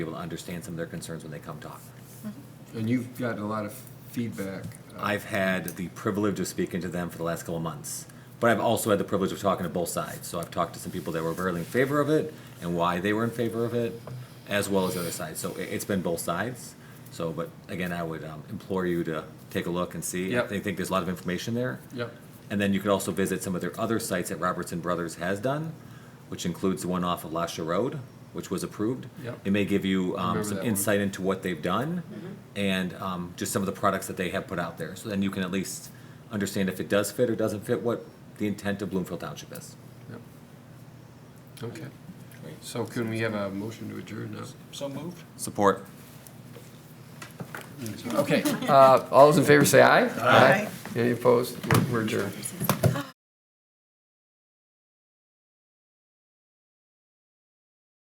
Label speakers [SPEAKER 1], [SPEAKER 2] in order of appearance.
[SPEAKER 1] able to understand some of their concerns when they come talk.
[SPEAKER 2] And you've gotten a lot of feedback. uh,
[SPEAKER 1] I've had the privilege of speaking to them for the last couple of months, but I've also had the privilege of talking to both sides. So I've talked to some people that were very in favor of it and why they were in favor of it, as well as the other side. So it- it's been both sides. So, but again, I would um, implore you to take a look and see.
[SPEAKER 2] Yep.
[SPEAKER 1] They think there's a lot of information there.
[SPEAKER 2] Yep.
[SPEAKER 1] And then you could also visit some of their other sites that Robertson Brothers has done, which includes the one off of Lasha Road, which was approved.
[SPEAKER 2] Yep.
[SPEAKER 1] It may give you um,
[SPEAKER 2] Remember
[SPEAKER 1] some
[SPEAKER 2] that one.
[SPEAKER 1] insight into what they've done and um, just some of the products that they have put out there. So then you can at least understand if it does fit or doesn't fit what the intent of Bloomfield Township is.
[SPEAKER 2] Yep. Okay. So can we have a motion to adjourn now?
[SPEAKER 3] So moved.
[SPEAKER 1] Support.
[SPEAKER 2] Okay, uh, all those in favor say aye. Aye. Any opposed? We're- We're adjourned.